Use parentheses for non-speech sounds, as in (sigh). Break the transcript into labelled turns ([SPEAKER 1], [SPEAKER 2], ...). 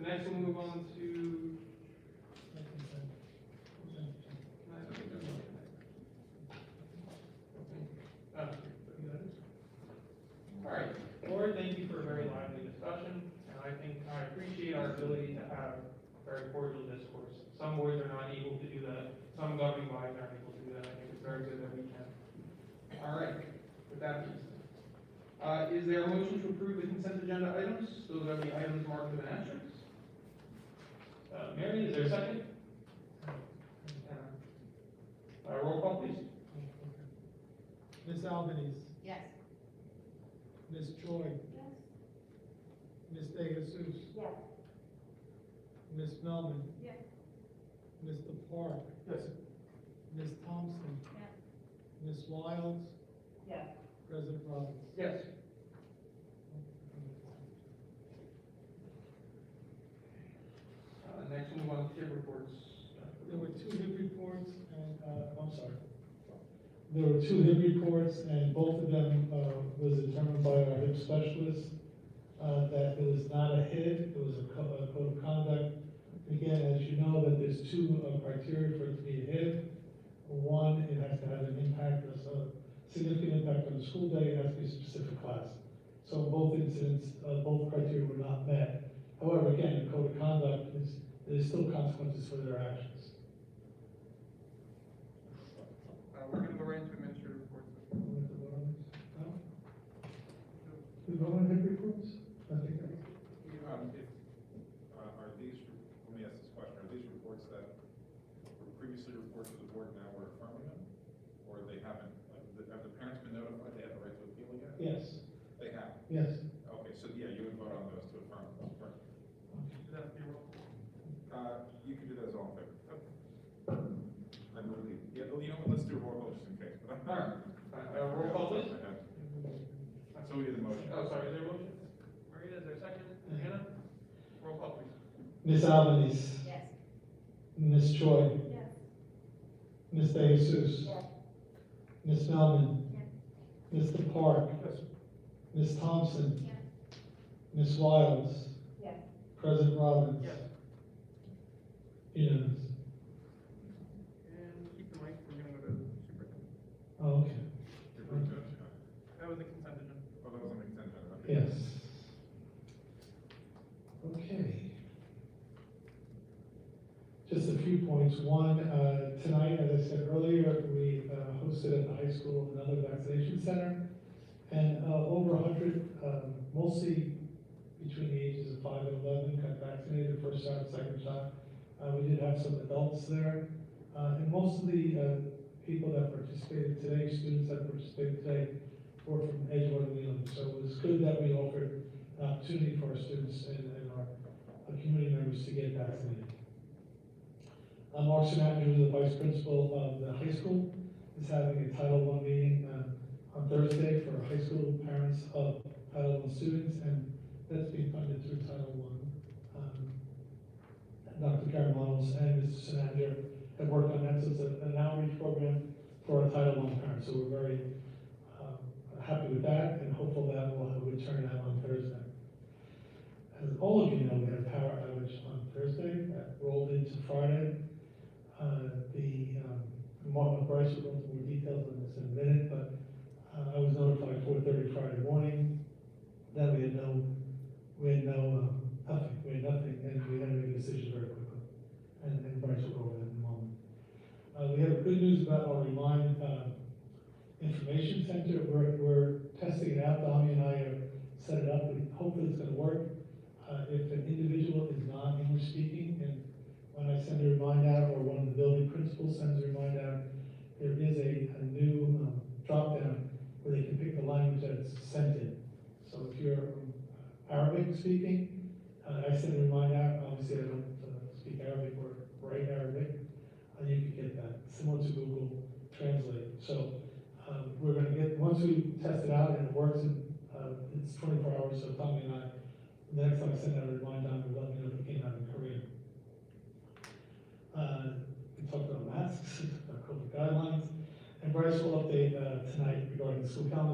[SPEAKER 1] we'll move on to. I don't think there's anything. Uh, All right, Lord, thank you for a very lively discussion, and I think I appreciate our ability to have very cordial discourse. Some boards are not able to do that, some governing bodies aren't able to do that, I think it's very good that we can. All right, with that being said. Uh, is there a motion to approve the consent agenda items, those are the items marked with an asterisk? Uh, Mary, is there a second? Uh, roll call please.
[SPEAKER 2] Ms. Albanese,
[SPEAKER 3] Yes.
[SPEAKER 2] Ms. Choi,
[SPEAKER 3] Yes.
[SPEAKER 2] Ms. De Jesus,
[SPEAKER 3] Yes.
[SPEAKER 2] Ms. Melman.
[SPEAKER 3] Yes.
[SPEAKER 2] Mr. Park,
[SPEAKER 1] Yes.
[SPEAKER 2] Ms. Thompson.
[SPEAKER 3] Yes.
[SPEAKER 2] Ms. Wiles,
[SPEAKER 3] Yes.
[SPEAKER 2] President Robbins.
[SPEAKER 1] Yes. Uh, next we'll move on to tip reports.
[SPEAKER 2] There were two hip reports and, uh, I'm sorry. There were two hip reports and both of them, uh, was determined by our hip specialist, uh, that it was not a hit, it was a co- a code of conduct. Again, as you know, that there's two uh, criteria for it to be a hit. One, it has to have an impact, or so significant impact on the school day, it has to be a specific class. So in both incidents, uh, both criteria were not met. However, again, the code of conduct is, there's still consequences for their actions.
[SPEAKER 1] Uh, we're gonna go right into administrative reports.
[SPEAKER 2] We vote on hip reports? I think I-
[SPEAKER 4] Um, if, uh, are these, let me ask this question, are these reports that were previously reported to the board now we're affirming them? Or they haven't, like, the- have the parents been notified they have the right to appeal again?
[SPEAKER 2] Yes,
[SPEAKER 4] They have,
[SPEAKER 2] yes.
[SPEAKER 4] okay, so yeah, you would vote on those to affirm, correct? Uh, you can do those all in favor. I'm relieved, yeah, well, you know what, let's do a roll call just in case. but I'm-
[SPEAKER 1] All right. Uh, uh, roll call, please.
[SPEAKER 4] I have- So we did the motion.
[SPEAKER 1] Oh, sorry, is there a motion? Marita, is there a second? Hannah? Roll call please.
[SPEAKER 2] Ms. Albanese,
[SPEAKER 3] Yes.
[SPEAKER 2] Ms. Choi,
[SPEAKER 3] Yes.
[SPEAKER 2] Ms. De Jesus,
[SPEAKER 3] Yes.
[SPEAKER 2] Ms. Melman,
[SPEAKER 3] Yes.
[SPEAKER 2] Mr. Park,
[SPEAKER 1] Yes.
[SPEAKER 2] Ms. Thompson,
[SPEAKER 3] Yes.
[SPEAKER 2] Ms. Wiles,
[SPEAKER 3] Yes.
[SPEAKER 2] President Robbins.
[SPEAKER 1] Yes.
[SPEAKER 2] Unanimous.
[SPEAKER 1] And keep the mic, we're gonna go to superintendent.
[SPEAKER 2] Oh, Okay,
[SPEAKER 4] You're approved, yeah.
[SPEAKER 1] That was a consent agenda.
[SPEAKER 4] Oh, that was an extension, okay.
[SPEAKER 2] yes. Okay. Just a few points. One, uh, tonight, as I said earlier, we uh, hosted at the high school another vaccination center. And uh, over hundred, um, mostly between the ages of five and eleven, got vaccinated first shot, second shot. Uh, We did have some adults there. Uh, And most of the uh, people that participated today, students that participated today, were from Edgewater and Leland. So it was good that we offered an opportunity for our students and and our uh, community members to get vaccinated. Uh, Mark Sinatra, the vice principal of the high school, is having a Title I meeting uh, on Thursday for high school parents of Title I students, and that's being funded through Title I. Um, Dr. Karen Wallace and Mr. Sinatra have worked on that, so it's a- an outreach program for our Title I parents, so we're very um, happy with that, and hopeful that we'll have a good turnout on Thursday. As all of you know, we had a power outage on Thursday that rolled into Friday. Uh, The, um, Mark McBrice will go into more details on this in a minute, but uh, I was notified four thirty Friday morning that we had no, we had no, um, nothing, we had nothing, and we had to make a decision very quickly. And, and Bryce will go over that in a moment. Uh, We have good news about our Remind uh, Information Center, we're, we're testing it out, Dami and I have set it up, and hopefully it's gonna work. Uh, if an individual is not English speaking, and when I send a remind out, or one of the building principals sends a remind out, there is a, a new, um, dropdown where they can pick the language that's sent in. So if you're um, Arabic speaking, uh, I send a remind out, obviously I don't uh, speak Arabic or write Arabic, uh, you can get that, similar to Google Translate. So um, we're gonna get, once we test it out and it works, and, uh, it's twenty-four hours, so Tommy and I, the next time I send out a reminder, I'm gonna let me know if it came out in Korean. Uh, we talked (laughs) about masks, we talked about COVID guidelines, and Bryce will update, uh, tonight regarding the school calendar,